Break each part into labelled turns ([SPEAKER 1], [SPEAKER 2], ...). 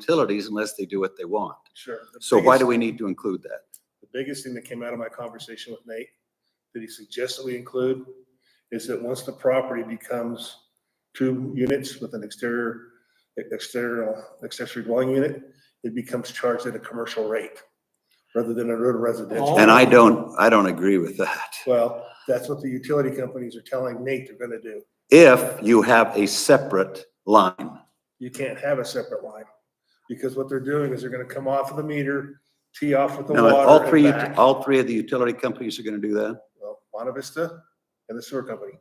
[SPEAKER 1] utilities unless they do what they want.
[SPEAKER 2] Sure. The
[SPEAKER 1] So why do
[SPEAKER 2] biggest-
[SPEAKER 1] we need to include that?
[SPEAKER 2] The biggest thing that came out of my conversation with Nate, that he suggests that we include, is that once the property becomes two units with an exterior, exterior accessory dwelling unit, it becomes charged at a commercial rate rather than a residential.
[SPEAKER 1] And I don't, I don't agree with that.
[SPEAKER 2] Well, that's what the utility companies are telling Nate they're gonna do.
[SPEAKER 1] If you have a separate line,
[SPEAKER 2] You can't have a separate line. Because what they're doing is they're gonna come off of the meter, tee off with the
[SPEAKER 1] now,
[SPEAKER 2] water.
[SPEAKER 1] if all
[SPEAKER 2] and
[SPEAKER 1] three,
[SPEAKER 2] back.
[SPEAKER 1] all three of the utility companies are gonna do that?
[SPEAKER 2] well, Buena Vista and the sewer company.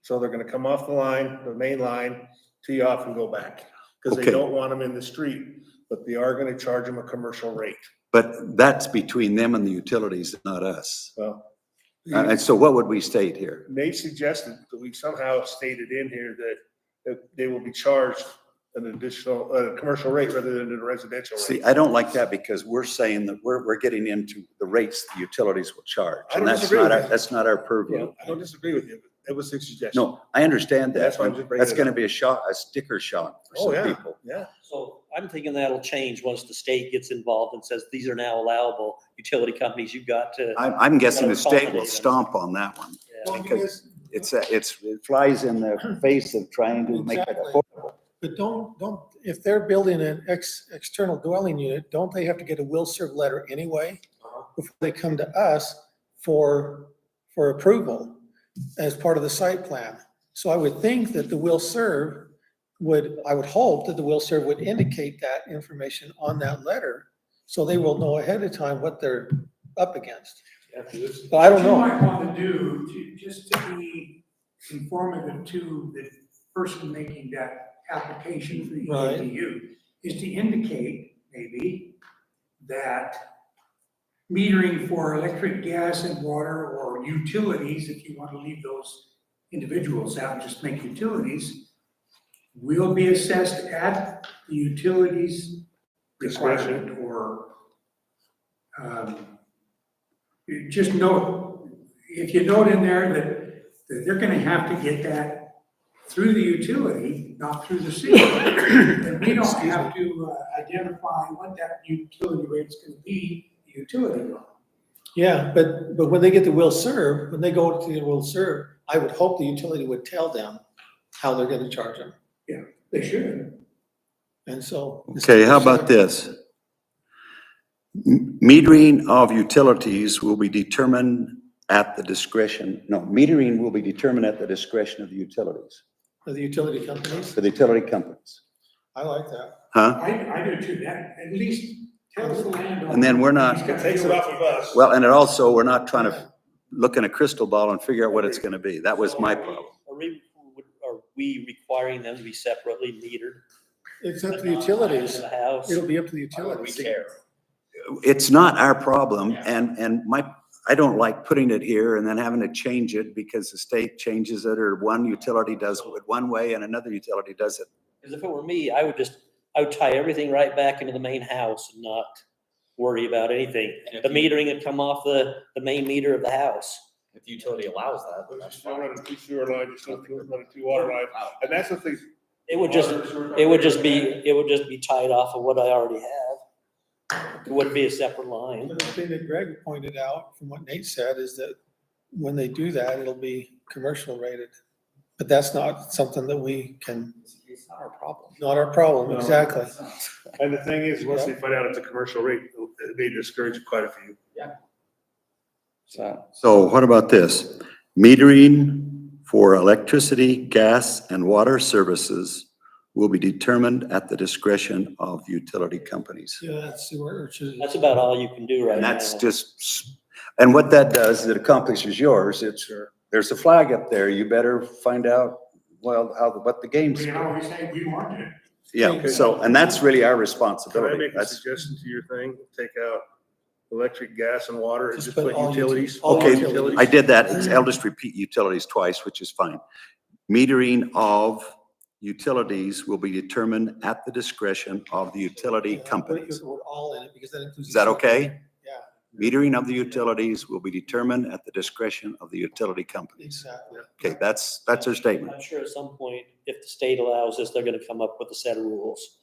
[SPEAKER 2] So they're gonna come off the line, the main line, tee off and go back, because they
[SPEAKER 1] Okay.
[SPEAKER 2] don't want them in the street, but they are gonna charge them a commercial rate.
[SPEAKER 1] But that's between them and the utilities, not us.
[SPEAKER 2] Well,
[SPEAKER 1] Uh, And and so what would we state here?
[SPEAKER 2] Nate suggested that we somehow stated in here that, that they will be charged an additional, uh, commercial rate rather than a residential rate.
[SPEAKER 1] See, I don't like that because we're saying that we're, we're getting into the rates the utilities will charge.
[SPEAKER 2] I
[SPEAKER 1] And
[SPEAKER 2] don't
[SPEAKER 1] that's
[SPEAKER 2] disagree
[SPEAKER 1] not,
[SPEAKER 2] with
[SPEAKER 1] our
[SPEAKER 2] that.
[SPEAKER 1] that's not our purview.
[SPEAKER 2] I don't disagree with you, but it was a suggestion.
[SPEAKER 1] No, I understand that.
[SPEAKER 2] That's why I'm just bringing
[SPEAKER 1] That's
[SPEAKER 2] it
[SPEAKER 1] gonna
[SPEAKER 2] up.
[SPEAKER 1] be a shock, a sticker shock
[SPEAKER 2] Oh,
[SPEAKER 1] for some
[SPEAKER 2] yeah.
[SPEAKER 1] people.
[SPEAKER 2] Yeah,
[SPEAKER 3] So I'm thinking that'll change once the state gets involved and says, these are now allowable utility companies, you've got to.
[SPEAKER 1] I'm, I'm guessing the
[SPEAKER 3] Gotta
[SPEAKER 1] state will
[SPEAKER 3] accommodate them.
[SPEAKER 1] stomp on that one.
[SPEAKER 3] Yeah.
[SPEAKER 4] Well,
[SPEAKER 1] because
[SPEAKER 4] yes,
[SPEAKER 1] It's, a- it's, it flies in the face of trying to make it
[SPEAKER 4] Exactly.
[SPEAKER 1] affordable.
[SPEAKER 4] But don't, don't, if they're building an ex, external dwelling unit, don't they have to get a will serve letter anyway? Before they come to us for, for approval as part of the site plan. So I would think that the will serve would, I would hope that the will serve would indicate that information on that letter. So they will know ahead of time what they're up against. But I don't
[SPEAKER 5] What
[SPEAKER 4] know.
[SPEAKER 5] you might want to do, to, just to be informative to the person making that application for the
[SPEAKER 4] Right.
[SPEAKER 5] ADU, is to indicate maybe that metering for electric, gas and water or utilities, if you want to leave those individuals out, and just make utilities, will be assessed at the utilities
[SPEAKER 2] Discretion.
[SPEAKER 5] requirement or um, you just note, if you note in there that, that they're gonna have to get that through the utility, not through the city. And we don't have to uh, identify what that utility rate's gonna be, the utility rate.
[SPEAKER 4] Yeah, but, but when they get the will serve, when they go to the will serve, I would hope the utility would tell them how they're gonna charge them.
[SPEAKER 5] They should.
[SPEAKER 4] And so.
[SPEAKER 1] Okay, how about this? M- Metering of utilities will be determined at the discretion, no, metering will be determined at the discretion of the utilities,
[SPEAKER 4] For the utility companies,
[SPEAKER 1] for the utility companies,
[SPEAKER 4] I like that.
[SPEAKER 1] huh?
[SPEAKER 5] I, I do too, that, at least tells the landowner.
[SPEAKER 1] And then we're not-
[SPEAKER 5] he's gotta
[SPEAKER 2] takes it
[SPEAKER 5] do
[SPEAKER 2] off of us.
[SPEAKER 1] Well, and it also, we're not trying to look in a crystal ball and figure out what it's gonna be. That was my problem.
[SPEAKER 3] Are we, are we requiring them to be separately metered?
[SPEAKER 4] It's up to the utilities.
[SPEAKER 3] The house?
[SPEAKER 4] It'll be up to the
[SPEAKER 3] Why would we
[SPEAKER 4] utilities.
[SPEAKER 3] care?
[SPEAKER 1] it's not our problem
[SPEAKER 3] Yeah.
[SPEAKER 1] and, and my, I don't like putting it here and then having to change it because the state changes it or one utility does it one way and another utility does it.
[SPEAKER 3] Because if it were me, I would just, I would tie everything right back into the main house and not worry about anything. The metering would come off the, the main meter of the house.
[SPEAKER 6] If the utility allows that, then that's
[SPEAKER 2] Just don't
[SPEAKER 6] fine.
[SPEAKER 2] run a two sewer line, just don't run a two water line. And that's the thing,
[SPEAKER 3] It would just, it would just be, it would just be tied off of what I already have. It wouldn't be a separate line.
[SPEAKER 4] The thing that Greg pointed out from what Nate said is that when they do that, it'll be commercial rated. But that's not something that we can,
[SPEAKER 6] It's not our problem.
[SPEAKER 4] not our problem,
[SPEAKER 2] No.
[SPEAKER 4] exactly.
[SPEAKER 2] And the thing is, once they find out it's a commercial rate, it may discourage quite a few.
[SPEAKER 6] So,
[SPEAKER 1] So what about this? Metering for electricity, gas and water services will be determined at the discretion of utility companies.
[SPEAKER 4] Yeah, that's sewer, or should-
[SPEAKER 3] That's about all you can do right
[SPEAKER 1] And
[SPEAKER 3] now.
[SPEAKER 1] that's just, s- and what that does, is it accomplishes yours. It's, there's a flag up there. You better find out, well, how, the- what the game's.
[SPEAKER 5] We always say we want it.
[SPEAKER 1] Yeah,
[SPEAKER 4] Okay.
[SPEAKER 1] so, and that's really our
[SPEAKER 2] Can I
[SPEAKER 1] responsibility.
[SPEAKER 2] make a
[SPEAKER 1] That's,
[SPEAKER 2] suggestion to your thing? Take out electric, gas and water and
[SPEAKER 4] Just
[SPEAKER 2] just
[SPEAKER 4] put
[SPEAKER 2] put
[SPEAKER 4] all
[SPEAKER 2] utilities.
[SPEAKER 4] utilities.
[SPEAKER 1] Okay,
[SPEAKER 2] utilities.
[SPEAKER 1] I did that. It's- I'll just repeat utilities twice, which is fine. Metering of utilities will be determined at the discretion of the utility
[SPEAKER 4] Yeah, put
[SPEAKER 1] companies.
[SPEAKER 4] the word All in it, because that includes.
[SPEAKER 1] Is that okay?
[SPEAKER 4] Yeah.
[SPEAKER 1] Metering of the utilities will be determined at the discretion of the utility companies.
[SPEAKER 4] Exactly.
[SPEAKER 1] Okay, that's, that's her statement.
[SPEAKER 3] I'm sure at some point, if the state allows this, they're gonna come up with a set of rules.